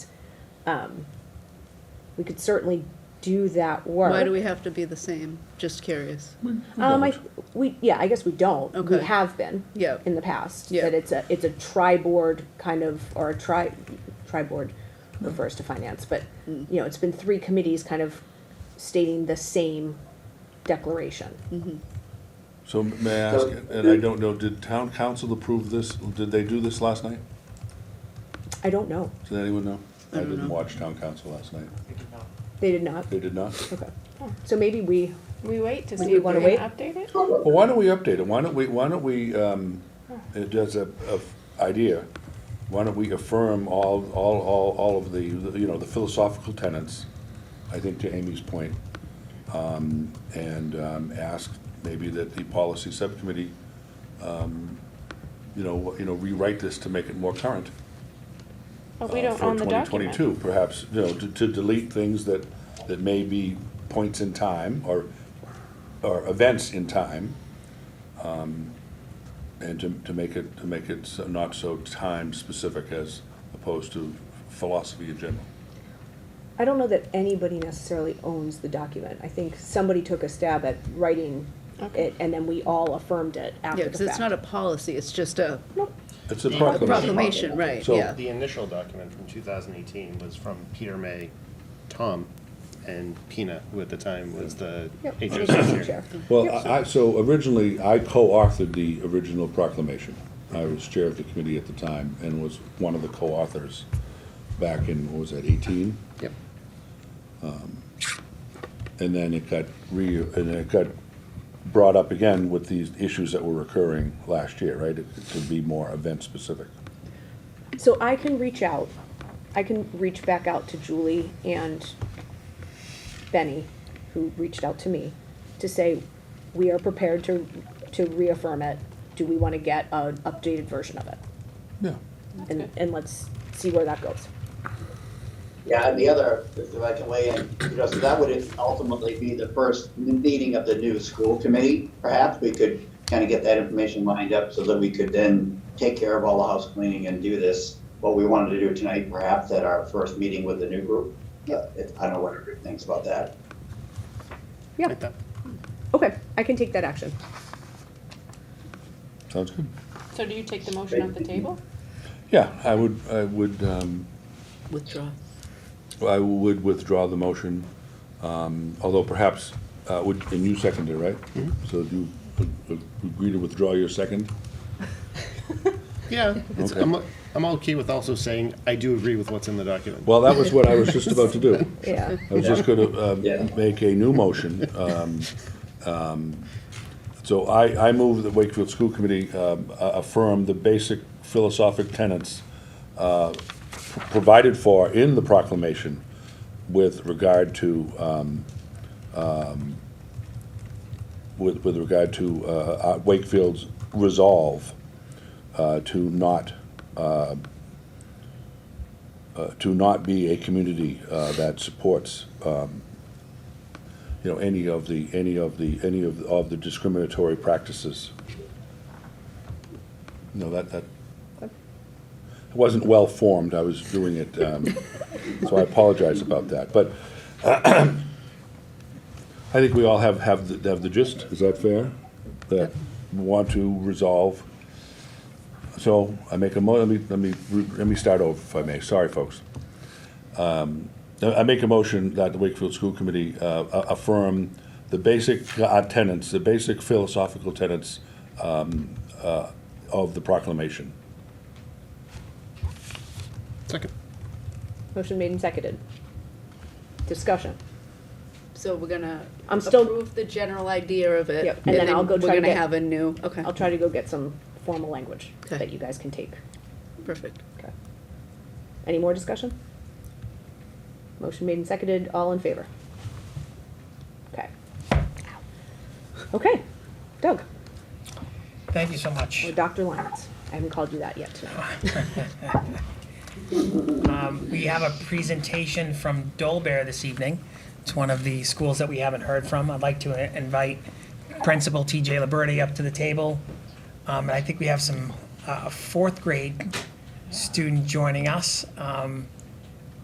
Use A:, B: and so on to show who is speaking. A: um, we could certainly do that work.
B: Why do we have to be the same? Just curious.
A: Um, I, we, yeah, I guess we don't. We
B: Okay.
A: have been.
B: Yeah.
A: In the past.
B: Yeah.
A: That it's a, it's a tri-board kind of, or a tri, tri-board refers to finance, but,
B: Mm.
A: you know, it's been three committees kind of stating the same declaration.
C: So may I ask, and I don't know, did town council approve this? Did they do this last night?
A: I don't know.
C: Does anyone know? I
B: don't
C: didn't
B: know.
C: watch town council last night.
A: They did not.
C: They did not?
A: Okay. So maybe we,
D: We wait to
A: Do
D: see
A: you
D: if we're
A: wanna
D: gonna
A: wait?
D: update it?
C: Well, why don't we update it? Why don't we, why don't we, um, it does a, a idea. Why don't we affirm all, all, all, all of the, you know, the philosophical tenets, I think to Amy's point. Um, and, um, ask maybe that the policy subcommittee, um, you know, you know, rewrite this to make it more current.
D: But we
C: uh,
D: don't own the
C: For twenty
D: document.
C: twenty-two, perhaps, you know, to, to delete things that, that may be points in time or, or events in time. um, And to, to make it, to make it so- not so time-specific as opposed to philosophy in general.
A: I don't know that anybody necessarily owns the document. I think somebody took a stab at writing it and then we all affirmed it after
B: Yeah,
A: the
B: because it's not a
A: fact.
B: policy, it's just a
A: Nope.
C: It's a
E: The-
B: a
E: Proclamation.
B: proclamation, right,
C: So-
B: yeah.
E: The initial document from 2018 was from Peter May, Tom, and Pina, who at the time was the
A: Yep.
E: HOC
A: Chair.
E: chair.
C: Well, I, I- so originally, I co-authored the original proclamation. I was chair of the committee at the time and was one of the co-authors back in, what was that, eighteen? Um,
E: Yep.
C: And then it got re, and then it got brought up again with these issues that were recurring last year, right? It- To be more event-specific.
A: So I can reach out, I can reach back out to Julie and Benny, who reached out to me, to say, we are prepared to, to reaffirm it. Do we wanna get an updated version of it?
C: Yeah.
A: And, and let's see where that goes.
F: Yeah, and the other, if I can weigh in, you know, so that would ultimately be the first meeting of the new school committee. Perhaps we could kind of get that information lined up so that we could then take care of all the house cleaning and do this, what we wanted to do tonight, perhaps at our first meeting with the new group. Uh, if- I don't know what everybody thinks about that.
A: Yeah, okay, I can take that action.
C: Sounds good.
D: So do you take the motion off the table?
C: Yeah, I would, I would, um,
B: Withdraw.
C: I would withdraw the motion, um, although perhaps, uh, would, and you seconded, it, right? So do you a- a- agree to withdraw your second?
E: Yeah, it's,
C: Okay.
E: I'm, I'm okay with also saying, I do agree with what's in the document.
C: Well, that was what I was just about to do.
A: Yeah.
C: I was just gonna um,
F: Yeah.
C: make a new motion. um, um, So I, I move that Wakefield School Committee um, a- affirm the basic philosophic tenets uh, p- provided for in the proclamation with regard to, um, um, with, with regard to uh, uh, Wakefield's resolve uh, to not uh, to not be a community uh, that supports, um, you know, any of the, any of the, any of, of the discriminatory practices. No, that, that, it wasn't well-formed, I was doing it, um, so I apologize about that, but I think we all have, have, the- have the gist, is that fair? That we want to resolve, so I make a mo, let me, let me, re- let me start over if I may, sorry, folks. Uh, I make a motion that the Wakefield School Committee uh, a- affirm the basic uh, tenets, the basic philosophical tenets um, uh, of the proclamation.
E: Second.
A: Motion made and seconded. Discussion.
B: So we're gonna
A: I'm still-
B: approve the general idea of it.
A: Yep, and then I'll go try to
B: We're gonna
A: get-
B: have a new, okay,
A: I'll try to go get some formal language
B: Okay.
A: that you guys can take.
B: perfect.
A: Okay. Any more discussion? Motion made and seconded, all in favor? Okay. Okay, Doug,
G: Thank you so much.
A: or Dr. Lyons, I haven't called you that yet tonight.
G: Um, we have a presentation from Dolbear this evening. It's one of the schools that we haven't heard from. I'd like to uh, invite Principal TJ Liberty up to the table. Um, and I think we have some uh, fourth grade student joining us. Um,